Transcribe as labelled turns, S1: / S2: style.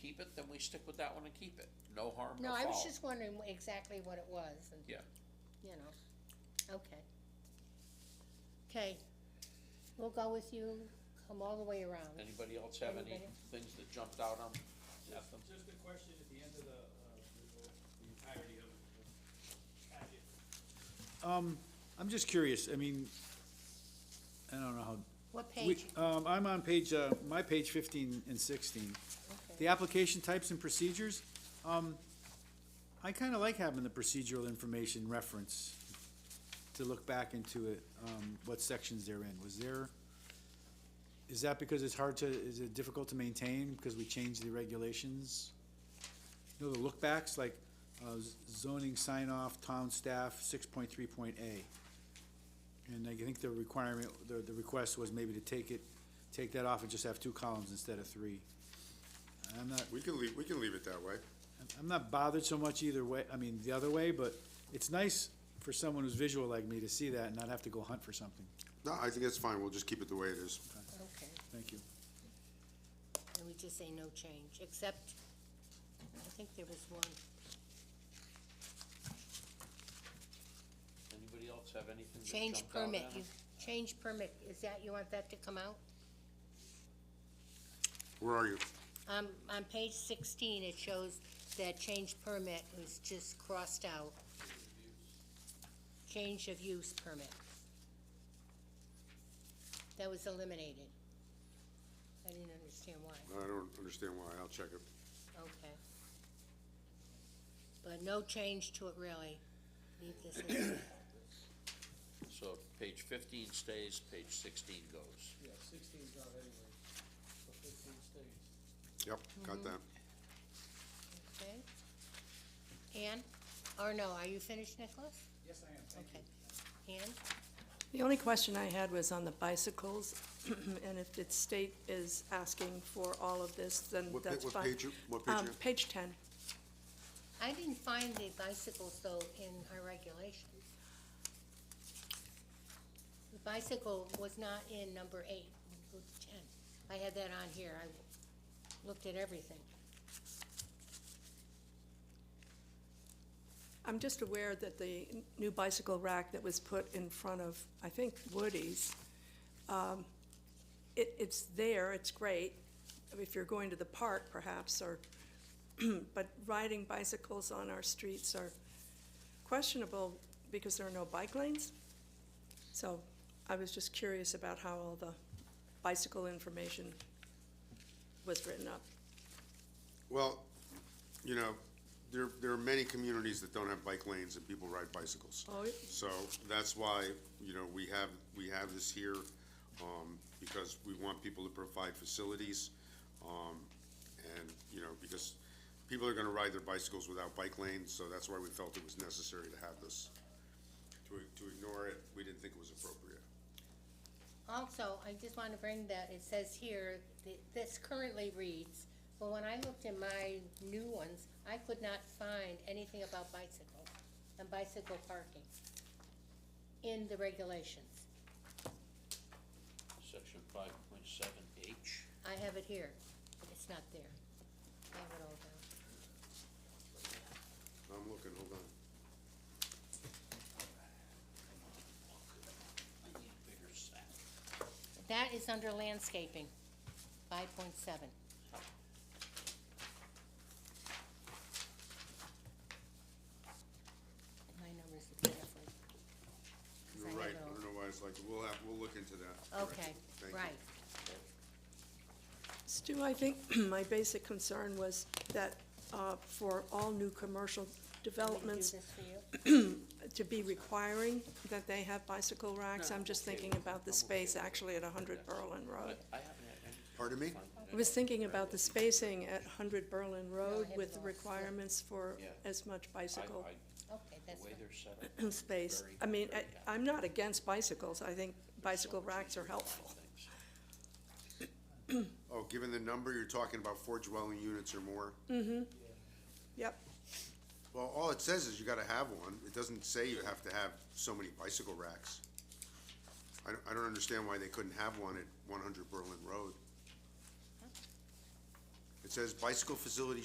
S1: keep it, then we stick with that one and keep it. No harm, no
S2: No,
S1: foul.
S2: I was just wondering wh- exactly what it was and,
S1: Yeah,
S2: you know, okay. Okay, we'll go with you, come all the way around.
S1: anybody else have any
S2: Anybody?
S1: things that jumped out on, at them?
S3: Just a question at the end of the, uh, the- the entirety of the packet.
S4: Um, I'm just curious, I mean, I don't know how.
S2: What
S4: we-
S2: page?
S4: Um, I'm on page, uh, my page fifteen and sixteen. The
S2: Okay.
S4: application types and procedures, um, I kinda like having the procedural information reference to look back into it, um, what sections they're in. Was there, is that because it's hard to, is it difficult to maintain because we changed the regulations? You know, the lookbacks, like, uh, z- zoning sign off, town staff, six point three point A. And I think the requirement, the, the request was maybe to take it, take that off and just have two columns instead of three. I'm not,
S5: We can leave, we can leave it that way.
S4: I'm not bothered so much either way, I mean, the other way, but it's nice for someone who's visual like me to see that and not have to go hunt for something.
S5: No, I think that's fine, we'll just keep it the way it is.
S2: Okay,
S4: Thank you.
S2: and we just say no change, except, I think there was one,
S1: Anybody else have anything that
S2: change
S1: jumped out
S2: permit,
S1: at 'em?
S2: you, change permit, is that, you want that to come out?
S5: Where are you?
S2: Um, on page sixteen, it shows that change permit was just crossed out. Change of use permit. That was eliminated. I didn't understand why,
S5: I don't understand why, I'll check it.
S2: okay. But no change to it really. Leave this as,
S1: So page fifteen stays, page sixteen goes.
S3: Yeah, sixteen's out anyway, so fifteen stays.
S5: Yep, got that.
S2: okay? Ann, or no, are you finished, Nicholas?
S3: Yes, I am, thank you.
S2: Okay. Ann,
S6: The only question I had was on the bicycles, and if the state is asking for all of this, then
S5: What pa-
S6: that's
S5: what
S6: fine.
S5: page you- what page
S6: Um,
S5: you-
S6: Page ten.
S2: I didn't find the bicycles though in our regulations. The bicycle was not in number eight, go to ten. I had that on here, I looked at everything.
S6: I'm just aware that the n- new bicycle rack that was put in front of, I think, Woody's, um, it, it's there, it's great, if you're going to the park perhaps, or, but riding bicycles on our streets are questionable because there are no bike lanes. So I was just curious about how all the bicycle information was written up.
S5: Well, you know, there, there are many communities that don't have bike lanes and people ride bicycles.
S6: Oh, it-
S5: So that's why, you know, we have, we have this here, um, because we want people to provide facilities. Um, and, you know, because people are gonna ride their bicycles without bike lanes, so that's why we felt it was necessary to have this. To, to ignore it, we didn't think it was appropriate.
S2: Also, I just want to bring that, it says here, th- this currently reads, but when I looked in my new ones, I could not find anything about bicycles and bicycle parking in the regulations.
S1: Section five point seven H.
S2: I have it here, but it's not there. I have it all down.
S5: I'm looking, hold on.
S1: I need a bigger sack.
S2: That is under landscaping, five point seven. My numbers are different. 'cause I
S5: You're
S2: have
S5: right,
S2: it
S5: I
S2: all.
S5: don't know why it's like, we'll have, we'll look into that.
S2: Okay,
S5: Thank you.
S2: right.
S6: Stu, I think my basic concern was that uh, for all new commercial
S2: Want me to do
S6: developments,
S2: this for you?
S6: to be requiring that they have bicycle racks, I'm just thinking about the space actually at 100 Berlin Road.
S1: But I haven't had any.
S5: Pardon me?
S6: I was thinking about the spacing at 100 Berlin Road
S2: have it
S6: with
S2: all.
S6: requirements for
S1: Yeah.
S6: as much
S1: I,
S6: bicycle
S1: I,
S2: Okay,
S1: the
S2: that's
S1: way
S2: fine.
S1: they're set up.
S6: space.
S1: Very,
S6: I mean,
S1: very
S6: I- I'm not against bicycles, I think bicycle racks are helpful.
S1: things.
S5: Oh, given the number, you're talking about four dwelling units or more?
S6: Yep,
S5: Well, all it says is you gotta have one, it doesn't say you have to have so many bicycle racks. I don't, I don't understand why they couldn't have one at one hundred Berlin Road. It says bicycle facility